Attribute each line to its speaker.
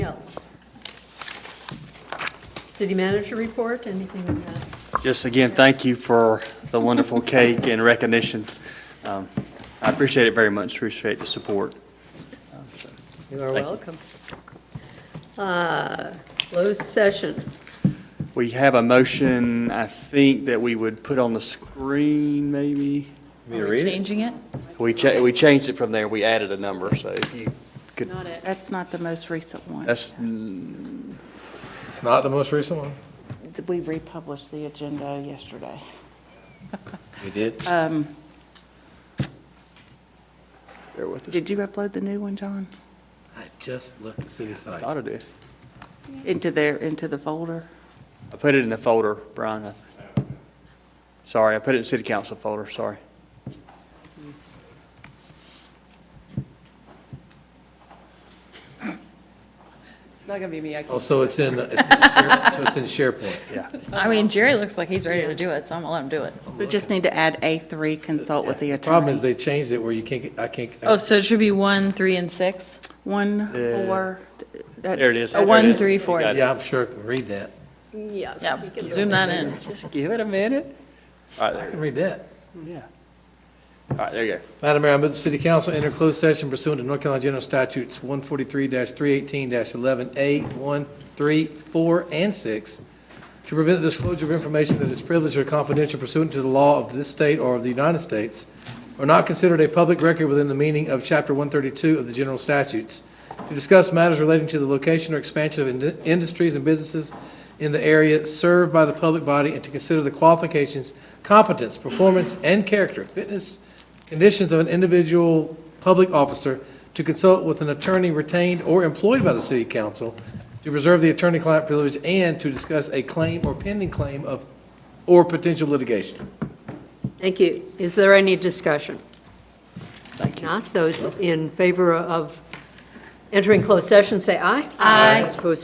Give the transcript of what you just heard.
Speaker 1: else? City manager report, anything on that?
Speaker 2: Just again, thank you for the wonderful cake and recognition. Um, I appreciate it very much, appreciate the support. Um, so,
Speaker 1: You are
Speaker 2: Thank you.
Speaker 1: welcome. Uh, Closed session.
Speaker 2: We have a motion, I think, that we would put on the screen, maybe?
Speaker 3: Are we changing it?
Speaker 2: We cha, we changed it from there, we added a number, so if you could,
Speaker 4: That's not the most recent one.
Speaker 2: that's,
Speaker 5: It's not the most recent one?
Speaker 4: We republished the agenda yesterday.
Speaker 5: We did.
Speaker 3: Uh,
Speaker 2: bear with us.
Speaker 4: Did you upload the new one, John?
Speaker 5: I just left the city site.
Speaker 2: Thought I did.
Speaker 4: Into their, into the folder?
Speaker 2: I put it in the folder, Brian. I th- Sorry, I put it in city council folder, sorry.
Speaker 6: It's not gonna be me, I can.
Speaker 5: Oh, so it's in, it's in Share- so it's in SharePoint.
Speaker 2: Yeah,
Speaker 3: I mean, Jerry looks like he's ready to do it, so I'm gonna let him do it.
Speaker 4: We just need to add A3, consult with the
Speaker 5: Problem
Speaker 4: attorney.
Speaker 5: is they changed it where you can't, get- I can't.
Speaker 3: Oh, so it should be one, three, and six?
Speaker 4: One,
Speaker 2: Yeah.
Speaker 4: four. th- that-
Speaker 2: there it is.
Speaker 4: a
Speaker 2: There it
Speaker 4: One,
Speaker 2: is.
Speaker 4: three.
Speaker 3: Three, four.
Speaker 2: You got it.
Speaker 5: Yeah, I'm sure I can read that.
Speaker 1: Yeah.
Speaker 3: Yeah, zoom that in.
Speaker 2: Give it a minute. All right, there
Speaker 5: I
Speaker 2: you
Speaker 5: can read that.
Speaker 2: go. Yeah. All right, there you go.
Speaker 5: Madam Mayor, I move the city council enter closed session pursuant to North Carolina General Statutes 143-318-11A, 1, 3, 4, and 6, to prevent the disclosure of information that is privileged or confidential pursuant to the law of this state or of the United States, or not considered a public record within the meaning of Chapter 132 of the General Statutes, to discuss matters relating to the location or expansion of ind- industries and businesses in the area served by the public body, and to consider the qualifications, competence, performance, and character, fitness, conditions of an individual public officer to consult with an attorney retained or employed by the city council to preserve the attorney-client privilege and to discuss a claim or pending claim of, or potential litigation.
Speaker 1: Thank you. Is there any discussion? Thank you. Not those in favor of entering closed session, say aye. Aye. Opposed,